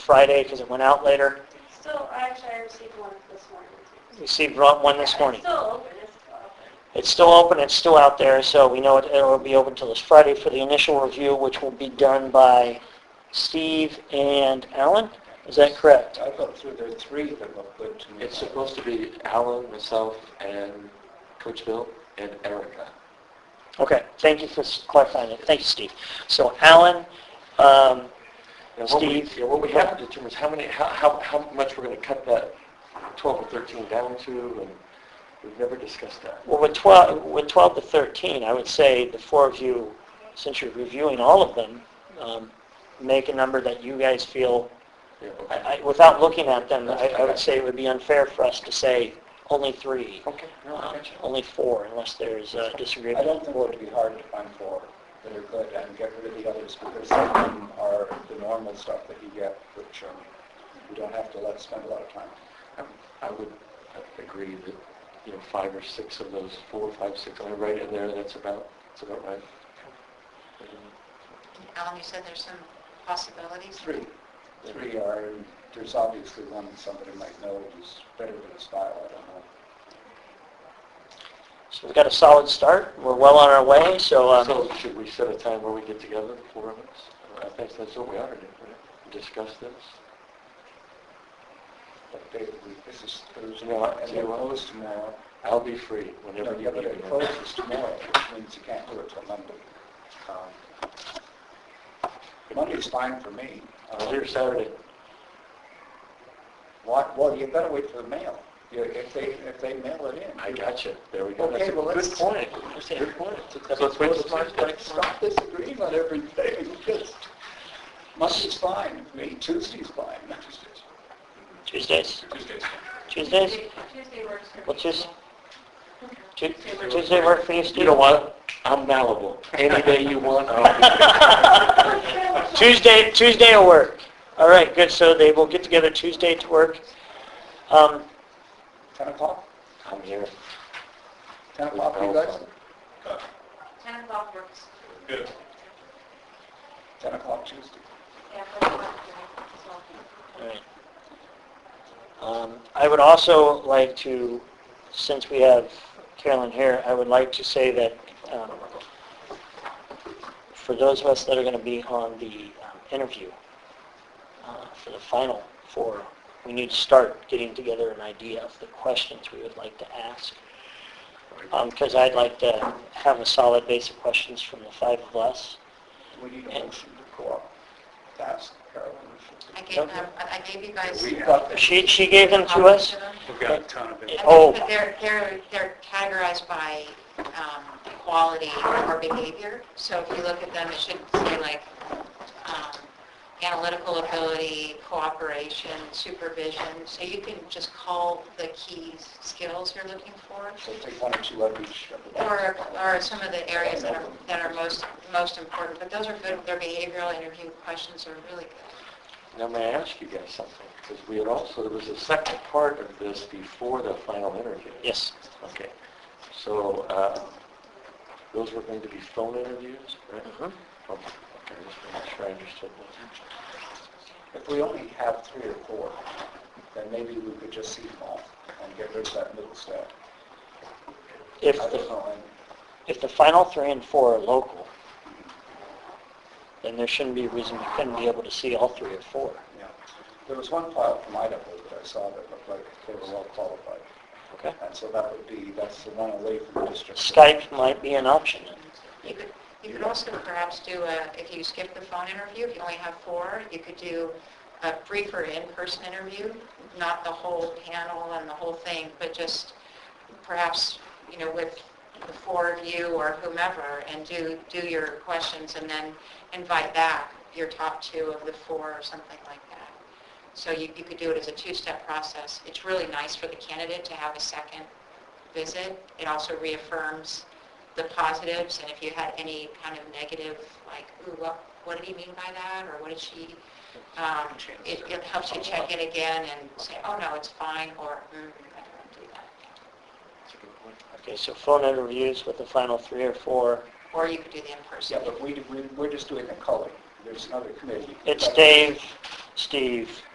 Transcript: Friday because it went out later. Still, actually, I received one this morning. Received one this morning. It's still open, it's still open. It's still open, it's still out there, so we know it it will be open till this Friday for the initial review, which will be done by Steve and Alan. Is that correct? I thought through there, three of them looked good to me. It's supposed to be Alan, myself, and Coach Bill, and Erica. Okay, thank you for s- clarifying it. Thank you, Steve. So Alan, um, Now, what we- Steve? yeah, What we have to determine is how many, how, how, how much we're going to cut that 12 or 13 down to, and we've never discussed that. Well, with 12, with 12 to 13, I would say the four of you, since you're reviewing all of them, um, make a number that you guys feel, Yeah, okay. I- I- without looking at them, I I would say it would be unfair for us to say only three, Okay, no, I um, got you. only four, unless there's uh, I disagreement. don't think it would be hard to find four that are good and get rid of the others because some of them are the normal stuff that you get with Sherman. You don't have to let, spend a lot of time. I would- Um, I would agree that, you know, five or six of those, four, five, six, I'm right in there, that's about, that's about right. Alan, you said there's some possibilities? Three. Three are, there's obviously one that somebody might know is better than his style, I don't know. So we've got a solid start, we're well on our way, so um, So should we set a time where we get together, the four of us? I think that's what we ought to do, right? Discuss this? But they, we- this is Thursday, No, I- and they close tomorrow. I'll be free No, whenever the you other day need me. closes tomorrow, which means you can't do it till Monday. Um, Monday's fine for me. I'm here Saturday. What, Um, well, you better wait for the mail. You- If they, if they mail it in. I got you. There we go. Okay, That's a well, good let's- point. Good point. So let's wait till Tuesday. Stop disagreeing on everything, just, Monday's fine, me, Tuesday's fine. Tuesdays, Tuesday's. Tuesdays, Tuesday works for Well, Tues- people. Tu- Tuesday work for you, Steve? You know what? I'm malleable. Any day you want, I'll be Tuesday, Tuesday will work. All right, good, so they will get together Tuesday to work. Um, 10 o'clock? I'm here. 10 o'clock, you guys? 10 o'clock works. 10 o'clock Tuesday. Yeah, that's what I'm all right. Um, I would also like to, since we have Carolyn here, I would like to say that um, for those of us that are going to be on the um, interview uh, for the final four, we need to start getting together an idea of the questions we would like to ask. because I'd like to have a solid base of questions from the five of us. We need a motion to go up. That's Carolyn. I gave them, I I gave you guys. We got the She, she gave them to us? We've got a ton of I Oh. think that they're, they're, they're categorized by um, quality or behavior. So if you look at them, it should say like um, analytical ability, cooperation, supervision. So you can just call the key skills you're looking for So take one or two of each. of the- or, or some of the areas that are, that are most, most important. But those are good, their behavioral interview questions are really good. Now, may I ask you guys something? Because we had also, there was a second part of this before the final interview. Yes. Okay. So uh, those were going to be phone interviews, right? Mm-hmm. Mhm. Okay, okay, just making sure I understood that. If we only have three or four, then maybe we could just see them all and get rid of that middle step. I If don't the, know, and if the final three and four are local, then there shouldn't be a reason we couldn't be able to see all three or four. Yeah. There was one file from Idaho that I saw that looked like they were well qualified. Okay. And so that would be, that's the one away from the district. Skype might be an option. You could, you could also perhaps do a, if you skip the phone interview, if you only have four, you could do a briefer in-person interview, not the whole panel and the whole thing, but just perhaps, you know, with the four of you or whomever, and do, do your questions, and then invite back your top two of the four or something like that. So you, you could do it as a two-step process. It's really nice for the candidate to have a second visit. It also reaffirms the positives, and if you had any kind of negative, like, ooh, what, what did he mean by that, or what did she, um, it, it helps you check it again and say, oh, no, it's fine, or, mm, I don't do that. Okay, so phone interviews with the final three or four. Or you could do the Yeah, in-person. but we, we, we're just doing the culling. there's another committee. It's Dave, Steve,